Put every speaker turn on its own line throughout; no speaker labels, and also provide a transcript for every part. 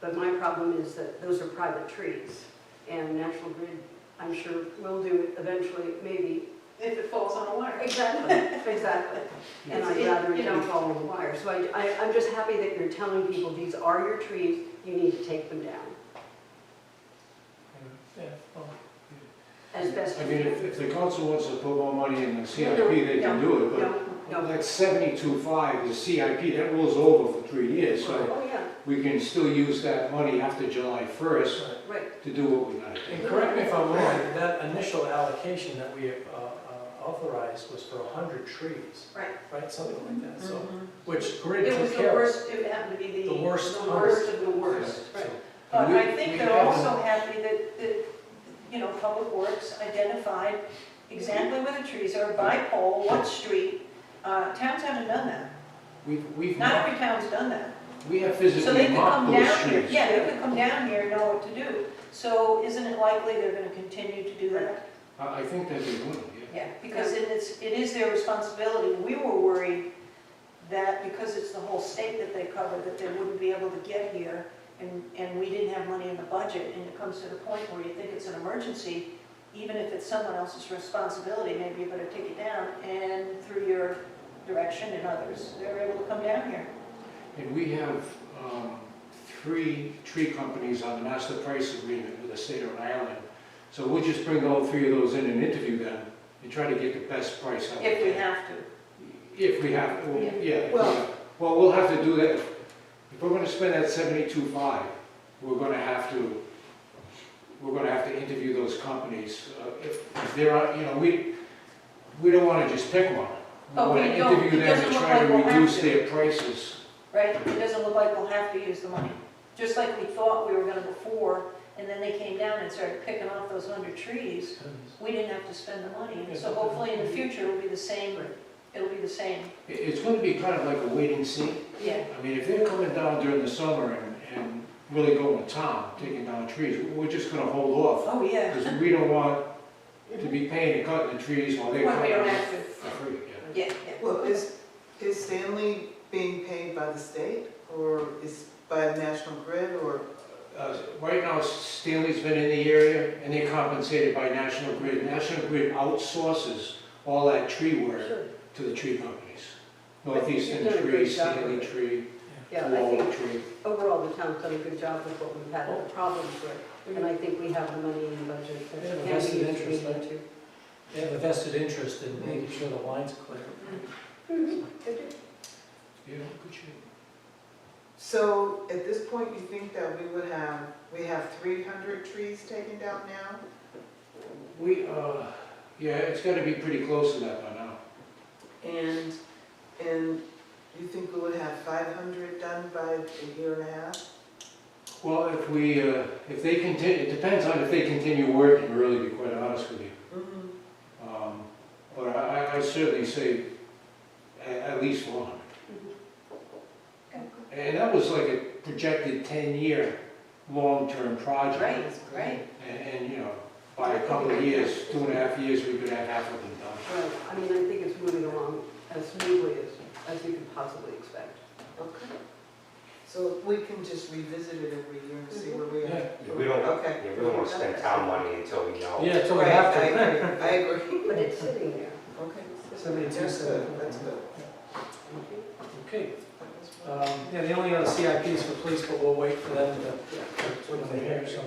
But my problem is that those are private trees, and National Grid, I'm sure, will do it eventually, maybe.
if it falls on a wire.
Exactly, exactly. And
It's-
I'd
it-
rather it
you know-
didn't fall on the wire. So I, I, I'm just happy that you're telling people, these are your trees, you need to take them down
Yeah, well,
as best
I
you
mean, if,
can.
if the council wants to put more money in the CIP,
No,
they can do it, but
No,
Well,
no.
That's seventy-two five, the CIP, that rolls over for three years, so
Oh, yeah,
we can still use that money after July first
right.
right.
to do what we gotta do.
And correct me if I'm wrong, that initial allocation that we uh, uh, authorized was for 100 trees.
Right. Mm-hmm.
Right, something like that, so, which grid
It was
took
the
care of.
worst, it happened to be the.
The worst
The worst of the worst,
So,
right.
And
But
we-
I think
we
they're
have-
also happy that, that, you know, Public Works identified exactly where the trees are, by pole, what street. Uh, Towns haven't done that.
We've, we've,
Not
marked-
every town's done that.
we have
So they
physically
could
marked
come
those
down here,
trees.
yeah, they could come down here and know what to do. So isn't it likely they're gonna continue to do that?
I, I think that they would, yeah.
Yeah, because it is, it is their responsibility. We were worried that because it's the whole state that they cover, that they wouldn't be able to get here, and, and we didn't have money in the budget, and it comes to the point where you think it's an emergency, even if it's someone else's responsibility, maybe you better take it down, and through your direction and others, they're able to come down here.
And we have, um, three tree companies on the master price agreement with the state of Rhode Island. So we'll just bring all three of those in and interview them and try to get the best price out of them.
If we have to.
If we have, well,
Yeah.
yeah, if we
Well-
have- well, we'll have to do that, if we're gonna spend that seventy-two five, we're gonna have to, we're gonna have to interview those companies, Uh, if, if there are, you know, we, we don't wanna just pick one. We
Oh, we
wanna
don't.
interview
It
them
doesn't
and
look
try to
like we'll have
reduce
to.
their prices.
right? It doesn't look like we'll have to use the money, just like we thought we were gonna before, and then they came down and started picking off those under trees. We didn't have to spend the money, and so hopefully in the future it'll be the same, it'll be the same,
It, it's gonna be kind of like a wait and see.
yeah.
I mean, if they're coming down during the summer and, and really going to town, taking down trees, we're just gonna hold off,
Oh, yeah.
because we don't want to be paying to cut the trees while they're
Well, we
cutting
don't
them.
have to,
For free, yeah.
yeah,
Well, is, is Stanley being paid by the state or is by National Grid or?
Uh, Right now, Stanley's been in the area, and they're compensated by National Grid. National Grid outsources all that tree work
Sure.
to the tree companies.
I think
Northeastern
you've done a
Tree,
great job
Stanley
with it.
Tree,
Yeah, I think
Wall Tree.
overall, the town's done a good job with what we've had,
Oh.
and the problems with, and I think we have the money in the budget. that
They have a
can be
vested
used if
interest,
we need
right?
to.
They have a vested interest in making sure the lines clear.
Mm-hmm.
Yeah, good shape.
So at this point, you think that we would have, we have three hundred trees taken down now?
We, uh, yeah, it's gotta be pretty close to that by now.
And, and you think we would have five hundred done by a year and a half?
Well, if we, uh, if they continue, it depends on if they continue working, really, to be quite honest with you.
Mm-hmm.
Um, But I I- I certainly say a- at least one. And that was like a projected 10-year long-term project.
right, right.
And, and, you know, by a couple of years, two and a half years, we could have half of them done.
Well, I mean, I think it's moving along as smoothly as, as you could possibly expect.
Okay. So we can just revisit it every year and see where we
Yeah,
are?
Yeah, We don't,
Okay.
yeah, we don't want to spend town money until we know.
Yeah, so we
Right,
have to.
I agree, I agree.
But it's sitting there.
Okay.
Seventy-two,
That's good,
seventy-four.
that's good.
Okay, um, yeah, the only other CIP is for police, but we'll wait for them to, when they hear, so.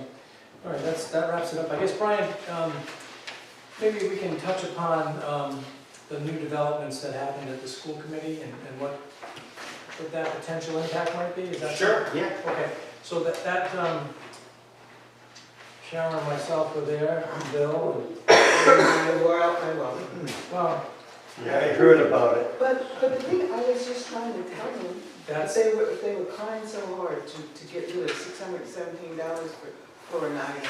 All right, that's, that wraps it up. I guess, Brian, um, maybe we can touch upon, um, the new developments that happened at the school committee and, and what, what that potential impact might be, is that?
Sure, yeah.
Okay, so that, that, um, Sharon and myself were there, and Bill, and,
We're out my welcome.
well,
Yeah, I heard about it.
But, but the thing, I was just trying to tell them, if
that's,
they were, if they were crying so hard to, to get rid of six hundred and seventeen dollars for, for an item,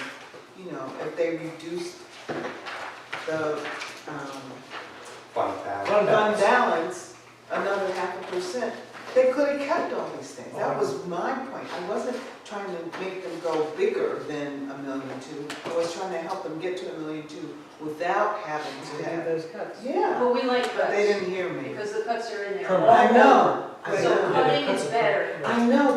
you know, if they reduced the, um,
Fun fact.
Fun
fund balance another half a percent, they could have kept all these things. That was my point. I wasn't trying to make them go bigger than a million two. I was trying to help them get to a million two without having to
To do
have,
those cuts.
yeah,
But we like
but they
cuts,
didn't hear me.
because the cuts are in there.
Permanent.
I know, I
So
know,
cutting is better.
I know,